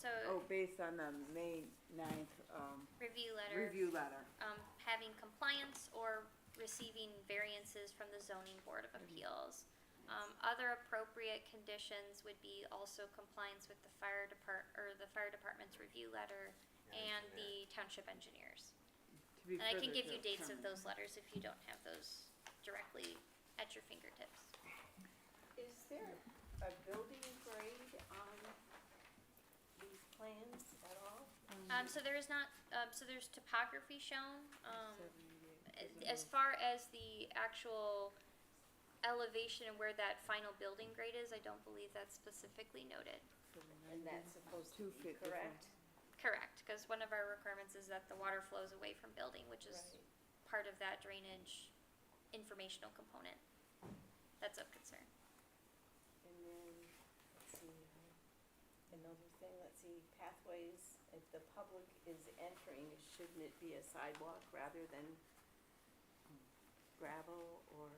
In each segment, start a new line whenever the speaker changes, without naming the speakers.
so Oh, based on the May ninth, um,
Review letter,
review letter,
um, having compliance or receiving variances from the zoning board
Mm-hmm.
of appeals. Um, other appropriate conditions would be also compliance with the fire depart, or the fire department's review letter and the township engineers.
to
And
be
I can
further
give you dates of
determined.
those letters if you don't have those directly at your fingertips.
Mm-hmm.
Is there a building grade on these plans at all?
Um, so there is not, um, so there's topography shown, um,
Seventy-eight
a-
percent
as far as the actual elevation and where that final building grade is, I don't believe that's specifically noted.
for the
And
90,
that's supposed
two
to be
feet difference.
correct?
Correct, because one of our requirements is that the water flows away from building, which is
Right.
part of that drainage informational component. That's of concern.
And then, let's see, another thing, let's see, pathways, if the public is entering, shouldn't it be a sidewalk rather than gravel or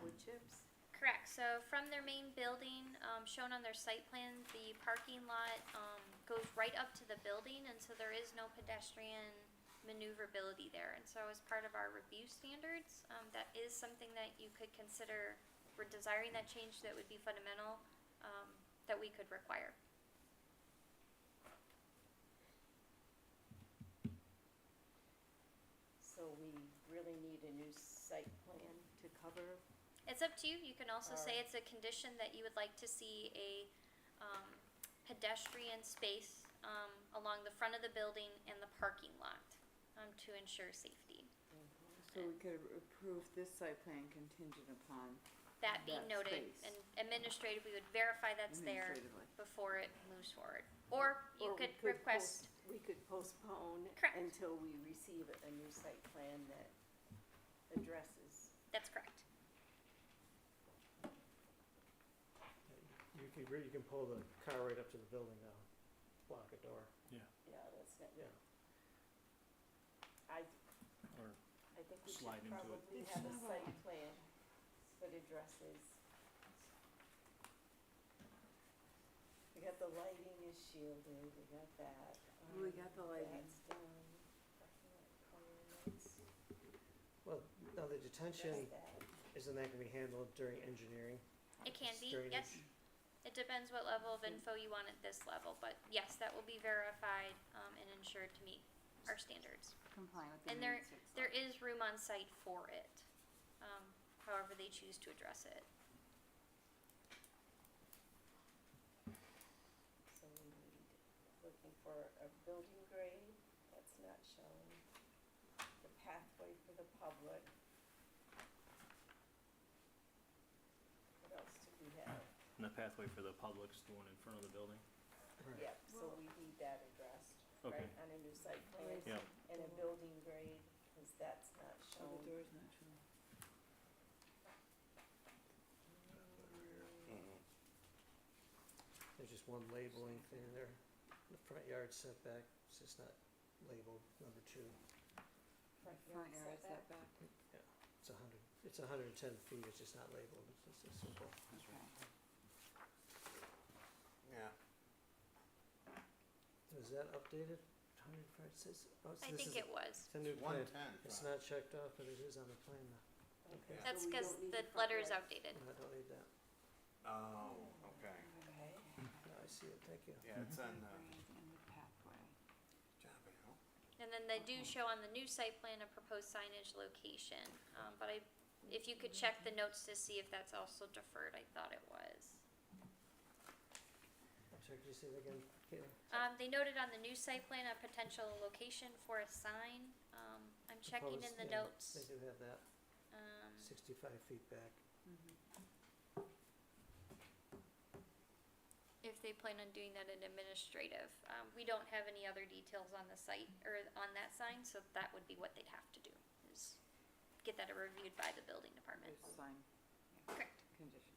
wood chips?
Correct, so from their main building, um, shown on their site plan, the parking lot, um, goes right up to the building, and so there is no pedestrian maneuverability there, and so as part of our review standards, um, that is something that you could consider, we're desiring that change that would be fundamental, um, that we could require.
So we really need a new site plan to cover
It's up to you, you can also say
Alright.
it's a condition that you would like to see a, um, pedestrian space, um, along the front of the building and the parking lot, um, to ensure safety.
So we could approve this site plan contingent upon
that being
that
noted
space.
and administrative, we would verify that's there
administratively.
before it moves forward. Or you
Or we
could request,
post- We could postpone
Correct.
until we receive a new site plan that addresses.
that's correct.
You can, re- you can pull the car right up to the building now, block a door.
Yeah, that's not
Yeah.
good. I,
Or
I think we
Slide
should
into it.
probably
It's
have a
not
site plan that addresses. We got the lighting is shielded, we got that.
We
um,
got the lighting.
That's done. Parking lot requirements,
Well, now the
that's
detention,
that.
isn't that gonna be handled during engineering?
It can
It's
be,
during
yes.
eng-
It depends what level of info you want at this level, but yes, that will be verified, um, and ensured to meet our standards.
Complying with
the And there- There is room on site for it, um, however they choose to address it.
So we need, looking for a building grade, that's not shown, the pathway for the public. What else do we have?
and the pathway for the public's the one in front of the building?
Right.
Yep, so we need that addressed, right,
Okay.
on a new site
Oh,
plan,
Yeah.
and a building grade, cause that's not
Oh,
shown.
the door's not showing.
Mm-hmm.
There's just one labeling thing there, the front yard setback, it's just not labeled, number two,
Front yard is that back?
it's a hundred, it's a hundred and ten feet, it's just not labeled, it's just a simple.
Okay.
Yeah.
Is that updated, hundred, it says, oh, it's,
I
this
think
is,
it was.
it's a new
One
plan,
ten.
it's not checked off, but it is on the plan now,
Okay.
Yeah.
That's
So we
because
don't need
the
front
letter is
yard.
outdated.
no, I don't need that,
Oh, okay.
Okay,
no, I see it, thank you.
Yeah, it's on the.
Grade and the pathway.
John, but how-
And then they do show on the new site plan a proposed signage location, um, but I, if you could check the notes to see if that's also deferred, I thought it was.
I'm sorry, could you say that again, Caitlin?
Um, they noted on the new site plan a potential location for a sign, um, I'm checking in the
Proposed, yeah, They
notes,
do have that,
um,
sixty-five feet back,
Mm-hmm.
Mhm.
if they plan on doing that in administrative. Um, we don't have any other details on the site, or on that sign, so that would be what they'd have to do, is get that reviewed by the building department.
There's sign
Correct.
conditions.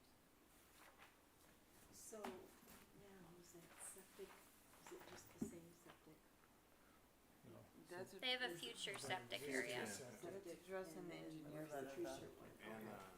so now is that septic, is it just the same septic?
That's, a-
They have a
is-
future
Right,
septic
future
area.
septic.
that's addressed in the engineer's.
And, uh,